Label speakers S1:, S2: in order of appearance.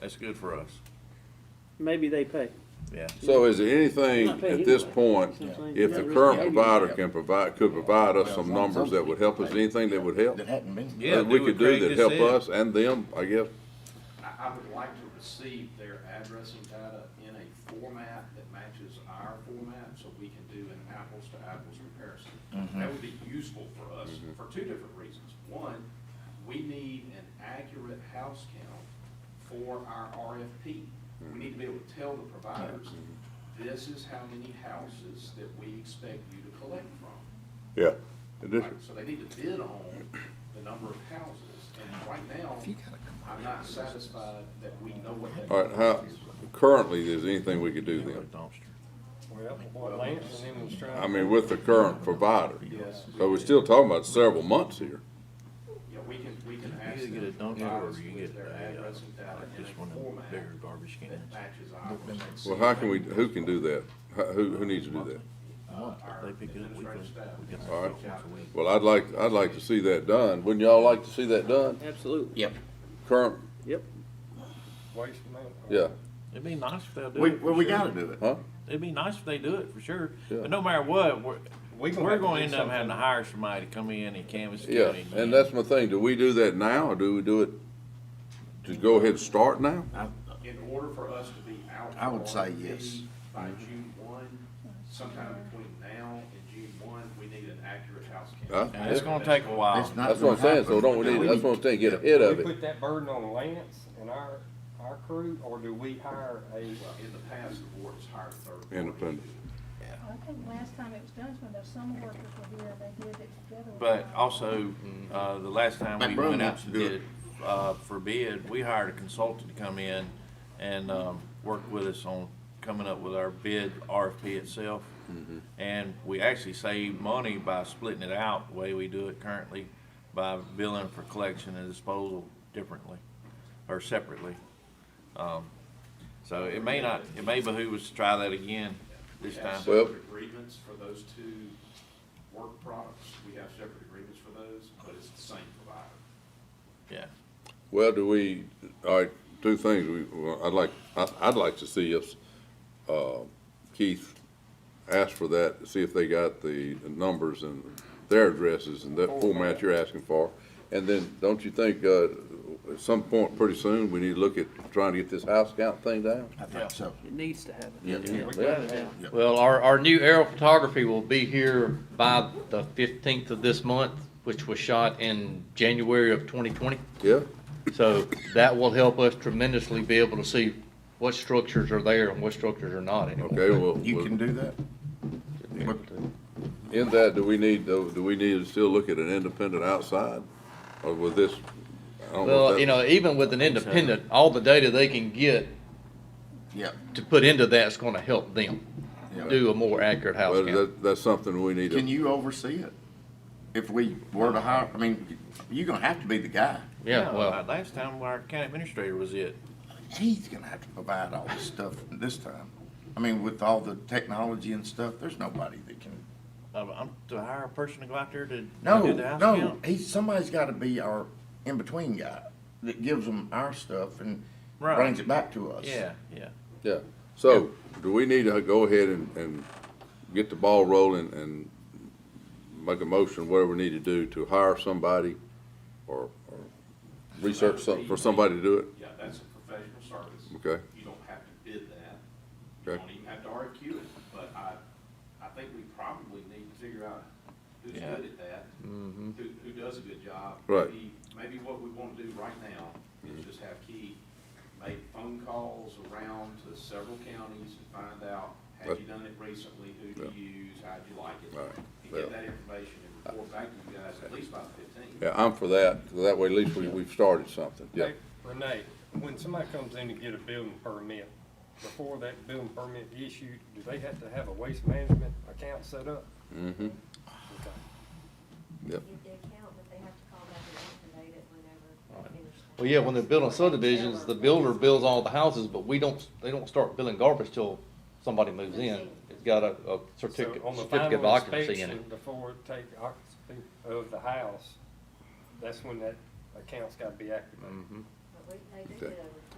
S1: That's good for us,
S2: Maybe they pay.
S1: yeah.
S3: So is there anything
S2: Not paid
S3: at this
S2: anyway.
S3: point,
S2: That's what I'm saying.
S3: if the
S2: You're not
S3: current
S2: really-
S3: provider can provide, could provide us some
S4: Yeah.
S3: numbers that would help us, anything that would help?
S4: That hadn't been.
S1: Yeah,
S3: That we
S1: do what
S3: could do
S1: Craig
S3: that
S1: just
S3: help
S1: said.
S3: us and them, I guess?
S5: I, I would like to receive their addressing data in a format that matches our format, so we can do an apples-to-apples comparison. That would be useful for us for two different reasons. One, we need an accurate house count for our RFP. We need to be able to tell the providers, this is how many houses that we expect you to collect from.
S3: Yeah. It is.
S5: Right, So they need to bid on the number of houses, and right now, I'm not satisfied that we know what that.
S3: All right, how, currently, is there anything we could do then?
S6: Well, what Lance and him was trying.
S3: I mean, with the current provider?
S5: Yes.
S3: So we're still talking about several months here.
S5: Yeah, we can, we can
S1: You
S5: ask
S1: either
S5: them
S1: get a
S5: to
S1: dump
S5: provide
S1: truck or
S5: us
S1: you
S5: with
S1: get
S5: their
S1: a, uh,
S5: address and data
S1: like
S5: in a
S1: just one of them
S5: format
S1: bigger garbage
S5: that
S1: cans.
S5: matches ours.
S3: Well, how can we, who can do that? How- Who, who needs to do that?
S5: Our
S1: They pick it up, we
S5: administrative
S1: can-
S5: staff.
S1: we can-
S3: All right. Well, I'd like, I'd like to see that done. Wouldn't y'all like to see that done?
S2: Absolutely.
S7: Yep.
S3: Current,
S2: Yep.
S6: Waste manpower.
S3: yeah,
S1: It'd be nice if they'll do
S4: We,
S1: it. for
S4: well, we
S1: sure.
S4: gotta do it.
S3: huh?
S1: It'd be nice if they do it for sure,
S3: Yeah.
S1: but no matter what, we're,
S6: We gonna
S1: we're
S6: have to
S1: gonna
S6: do
S1: end up having to
S6: something.
S1: hire somebody to come in and canvas the
S3: Yeah,
S1: county.
S3: and that's my thing. Do we do that now or do we do it to go ahead and start now?
S5: In order for us to be out.
S4: I would
S5: for
S4: say
S5: RFP
S4: yes. Mm-hmm.
S5: By June one, sometime between now and June one, we need an accurate house
S3: Huh?
S5: count.
S1: And it's gonna take a while.
S4: It's not
S3: That's what I'm
S4: gonna
S3: saying, so
S4: happen.
S3: don't we need, that's what I'm saying, get ahead
S6: Do
S3: of
S6: we
S3: it.
S6: put that burden on Lance and our, our crew, or do we hire a?
S5: Well, uh, in the past, the board has hired a third. party.
S3: Independent.
S8: I think last time it was done was when those summer workers were here and they did it together.
S1: But also, uh, the last time we
S4: McBroom
S1: went out
S4: needs
S1: to
S4: to do it.
S1: bid, uh, for bid, we hired a consultant to come in and, um, work with us on coming up with our bid RFP itself. And we actually save money by splitting it out, the way we do it currently, by billing for collection and disposal differently, or separately. Um, So it may not, it may behoove us to try that again this
S5: We have
S1: time.
S3: Well-
S5: separate agreements for those two work products. We have separate agreements for those, but it's the same provider.
S1: Yeah,
S3: Well, do we, all right, two things, we, well, I'd like, I, I'd like to see if, uh, Keith asked for that, see if they got the numbers and their addresses and that format you're asking for. And then, don't you think, uh, at some point pretty soon, we need to look at trying to get this house count thing down?
S4: I think so.
S2: It needs to happen.
S6: We gotta have-
S7: Well, our, our new aerial photography will be here by the fifteenth of this month, which was shot in January of twenty twenty.
S3: Yeah,
S7: So that will help us tremendously be able to see what structures are there and what structures are not anymore.
S3: okay, well.
S4: You
S3: well-
S4: can do that? But
S3: In that, do we need, do do we need to still look at an independent outside, or with this? I don't know if
S7: Well,
S3: that-
S7: you know, even with an independent, all the data they can get
S4: Yeah,
S7: to put into that's gonna help them
S4: yeah.
S7: do a more accurate house
S3: Well,
S7: count.
S3: that, that's something we need
S4: Can
S3: to,
S4: you oversee it? If we were to hire, I mean, you're gonna have to be the guy.
S7: Yeah,
S1: like
S7: well,
S1: uh, Last time our county administrator was it.
S4: He's gonna have to provide all this stuff this time. I mean, with all the technology and stuff, there's nobody that can.
S1: Uh, I'm to hire a person to go out there to
S4: No,
S1: do the house
S4: no,
S1: count?
S4: he's, somebody's gotta be our in-between guy that gives them our stuff and
S1: Right.
S4: brings it back to us.
S1: Yeah, yeah.
S3: yeah. So, do we need to go ahead and, and get the ball rolling and make a motion, whatever we need to do, to hire somebody or, or research something for somebody to do it?
S5: Yeah, that's a professional service.
S3: Okay.
S5: You don't have to bid that. You
S3: Okay.
S5: don't even have to RFQ it, but I, I think we probably need to figure out who's
S1: Yeah.
S5: good at that, who, who does a good job.
S3: Mm-hmm. Right. Mm-hmm.
S5: Maybe- Maybe what we want to do right now is just have Keith make phone calls around to several counties and find out, have
S3: That-
S5: you done it recently? Who do you use? How'd you like it?
S3: All right,
S5: And
S3: well.
S5: get that information and report back to you guys at least by the fifteenth.
S3: Yeah, I'm for that, so that way at least we, we've started something, yeah.
S6: Hey, Renee, when somebody comes in to get a building permit, before that building permit issued, do they have to have a waste management account set up?
S3: Mm-hmm,
S6: Okay.
S3: yep.
S9: get the account, but they have to call back and activate it whenever they finish. that.
S7: well, yeah, when they're building subdivisions, the builder builds all the houses, but we don't, they don't start building garbage till somebody moves in. It's got a, a
S6: So
S7: certificate,
S6: on the
S7: certificate of
S6: final
S7: occupancy in it.
S6: inspection, Before it take occupancy of the house, that's when that account's gotta be activated.
S9: But we, they do get a report